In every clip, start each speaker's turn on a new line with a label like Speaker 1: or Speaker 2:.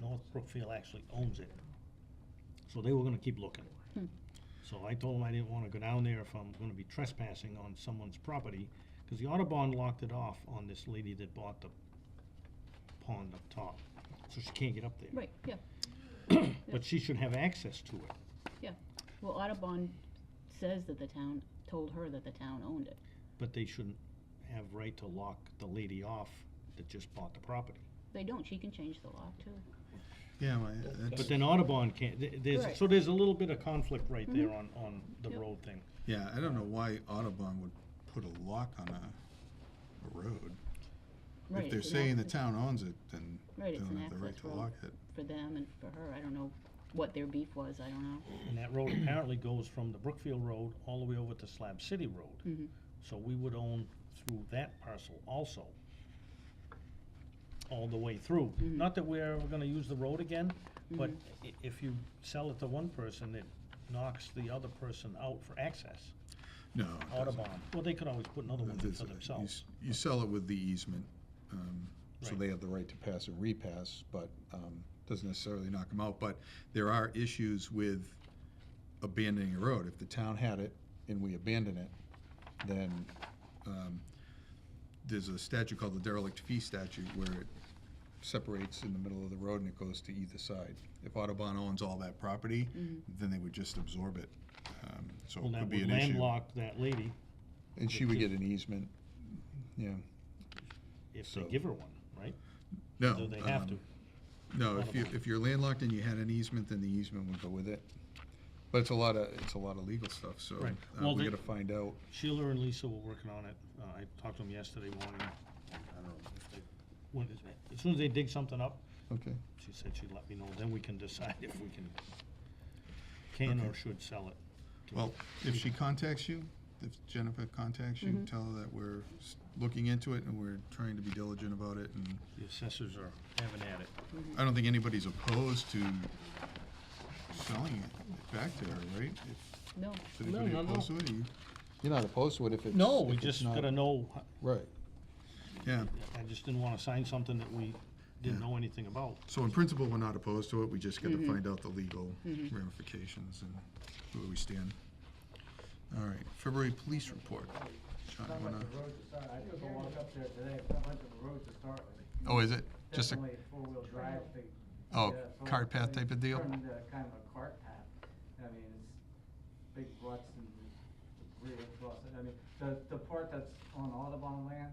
Speaker 1: North Brookfield actually owns it. So they were gonna keep looking.
Speaker 2: Hmm.
Speaker 1: So I told them I didn't wanna go down there if I'm gonna be trespassing on someone's property, cause the Audubon locked it off on this lady that bought the pond up top, so she can't get up there.
Speaker 2: Right, yeah,
Speaker 1: But she should have access to it.
Speaker 2: yeah. Well, Audubon says that the town, told her that the town owned it.
Speaker 1: But they shouldn't have right to lock the lady off that just bought the property.
Speaker 2: They don't, she can change the law too.
Speaker 3: Yeah, well,
Speaker 1: But
Speaker 3: that's,
Speaker 1: then Audubon can't, th- there's,
Speaker 2: Right. Mm-hmm.
Speaker 1: so there's a little bit of conflict right there on, on the
Speaker 2: Yep.
Speaker 1: road thing.
Speaker 3: yeah, I don't know why Audubon would put a lock on a, a road.
Speaker 2: Right,
Speaker 3: If they're
Speaker 2: it's an
Speaker 3: saying the
Speaker 2: access
Speaker 3: town owns it, then
Speaker 2: Right,
Speaker 3: they
Speaker 2: it's
Speaker 3: don't
Speaker 2: an
Speaker 3: have the right
Speaker 2: access
Speaker 3: to
Speaker 2: road.
Speaker 3: lock it.
Speaker 2: For them and for her, I don't know what their beef was, I don't know.
Speaker 1: And that road apparently goes from the Brookfield Road all the way over to Slab City Road.
Speaker 2: Mhm.
Speaker 3: Mm-hmm.
Speaker 1: So we would own through that parcel also. All the way through. Not that we're ever gonna use the road again, but i- if you sell it to one person, it knocks the other person out for access.
Speaker 3: No. it doesn't.
Speaker 1: Audubon, well, they could always put another one in
Speaker 3: There's
Speaker 1: for
Speaker 3: a- you s-
Speaker 1: themselves.
Speaker 3: You sell it with the easement, um, so
Speaker 1: Right.
Speaker 3: they have the right to pass and repass, but, um, doesn't necessarily knock them out. But there are issues with abandoning a road. If the town had it and we abandon it, then, um, there's a statute called the derelict fee statute where it separates in the middle of the road and it goes to either side. If Audubon owns all that property, then they would just absorb it. Um, So
Speaker 1: Well,
Speaker 3: it
Speaker 1: that
Speaker 3: could be
Speaker 1: would
Speaker 3: an issue.
Speaker 1: landlock that lady
Speaker 3: And she would get an easement, yeah.
Speaker 1: if they
Speaker 3: So-
Speaker 1: give her one, right?
Speaker 3: No.
Speaker 1: Do they have
Speaker 3: um,
Speaker 1: to?
Speaker 3: No,
Speaker 1: Not
Speaker 3: if you,
Speaker 1: allowed.
Speaker 3: if you're landlocked and you had an easement, then the easement would go with it. But it's a lot of, it's a lot of legal stuff, so
Speaker 1: Right.
Speaker 3: uh,
Speaker 1: Well,
Speaker 3: we
Speaker 1: they-
Speaker 3: gotta find out.
Speaker 1: Sheila and Lisa were working on it. Uh, I talked to them yesterday morning. I don't know if they, when, as soon as they dig something up,
Speaker 3: Okay,
Speaker 1: she said she'd let me know, then we can decide if we can, can or
Speaker 3: Okay.
Speaker 1: should sell it.
Speaker 3: well, if she contacts you, if Jennifer contacts
Speaker 1: Mm-hmm.
Speaker 3: you, tell her that we're s- looking into it and we're trying to be diligent about it and
Speaker 1: The assessors are having at it.
Speaker 3: I don't think anybody's opposed to selling it back to her, right? If-
Speaker 2: No,
Speaker 3: Is anybody
Speaker 1: not at all.
Speaker 3: opposed to it? You're not opposed to it if it's.
Speaker 1: No, oh, we just gotta know,
Speaker 3: Right. Yeah.
Speaker 1: I just didn't wanna sign something that we didn't
Speaker 3: Yeah.
Speaker 1: know anything about.
Speaker 3: So in principle, we're not opposed to it, we just gotta find out the legal ramifications and where we stand. All right, February police report. John,
Speaker 4: Not
Speaker 3: you
Speaker 4: much
Speaker 3: wanna-
Speaker 4: of a road to start. I took a walk up there today, it's not much of a road to start with.
Speaker 3: Oh, is it? Just a,
Speaker 4: Definitely a four-wheel drive thing.
Speaker 3: Oh,
Speaker 4: Yeah, so
Speaker 3: cart path
Speaker 4: it
Speaker 3: type of deal?
Speaker 4: Turned into kind of a cart path. I mean, it's big ruts and debris across it. I mean, the, the part that's on Audubon land,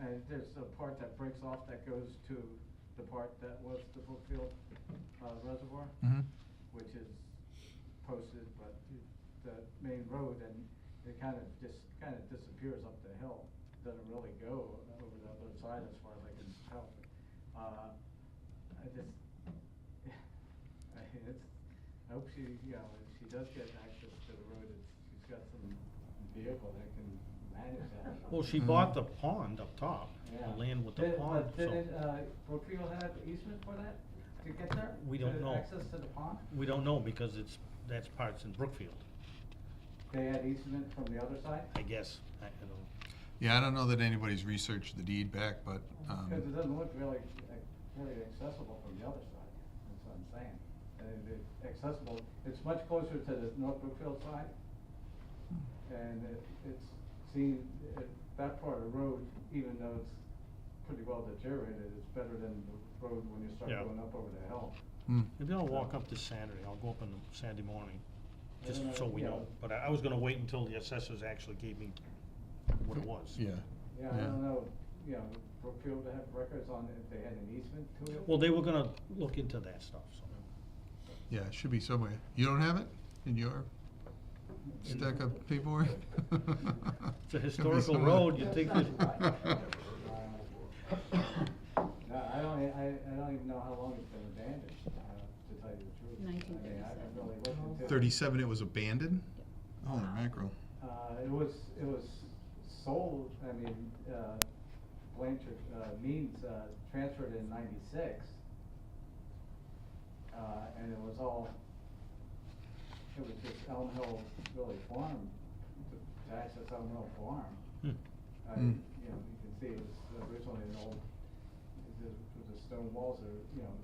Speaker 4: and there's a part that breaks off that goes to the part that was the Brookfield uh, Reservoir
Speaker 3: mhm,
Speaker 4: which is posted, but the main road, and it kind of just, kind of disappears up the hill. Doesn't really go over the other side as far as I can tell. Uh, I just, I mean, it's, I hope she, you know, if she does get access to the road, it's, she's got some vehicle that can manage that.
Speaker 1: Well, she bought the pond up top,
Speaker 4: Yeah.
Speaker 1: the land with the
Speaker 4: Did-
Speaker 1: pond,
Speaker 4: but
Speaker 1: so,
Speaker 4: Didn't, uh, Brookfield have easement for that, to get there?
Speaker 1: We don't
Speaker 4: To
Speaker 1: know.
Speaker 4: Access to the pond?
Speaker 1: we don't know because it's, that's parts in Brookfield,
Speaker 4: They had easement from the other side?
Speaker 1: I guess. I, I don't,
Speaker 3: yeah, I don't know that anybody's researched the deed back, but,
Speaker 4: Because it
Speaker 3: um,
Speaker 4: doesn't look really, ac- really accessible from the other side, that's what I'm saying. And it- it accessible, it's much closer to the North Brookfield side. And it, it's seen, it- that part of the road, even though it's pretty well deteriorated, it's better than the road when you start
Speaker 1: Yeah.
Speaker 4: going up over the hill.
Speaker 3: hmm,
Speaker 1: maybe I'll walk up this Saturday, I'll go up on the Saturday morning.
Speaker 4: I
Speaker 1: Just
Speaker 4: don't
Speaker 1: so we
Speaker 4: yeah.
Speaker 1: know, but I, I was gonna wait until the assessors actually gave me what it was.
Speaker 3: yeah.
Speaker 4: Yeah, I don't know, you know, Brookfield had records on if they had an easement to it.
Speaker 1: Well, they were gonna look into that stuff, so.
Speaker 3: Yeah, it should be somewhere. You don't have it in your stack of paperwork?
Speaker 1: It's a
Speaker 3: Should be
Speaker 1: historical
Speaker 3: somewhere.
Speaker 1: road, you'd think
Speaker 4: No, I don't, e- I, I don't even know how long it's been abandoned, uh, to tell you the truth. I mean, I haven't really looked into it.
Speaker 3: Thirty-seven, it was abandoned? Holy mackerel.
Speaker 4: Uh, it was, it was sold, I mean, uh, Blanchard, uh, Means, uh, transferred in ninety-six. Uh, and it was all, it was just Elm Hill really farm, to access Elm Hill farm.
Speaker 1: Hmm.
Speaker 4: I,
Speaker 3: Mm.
Speaker 4: uh, you know, you can see it was originally an old, it was- it was a stone walls or, you know,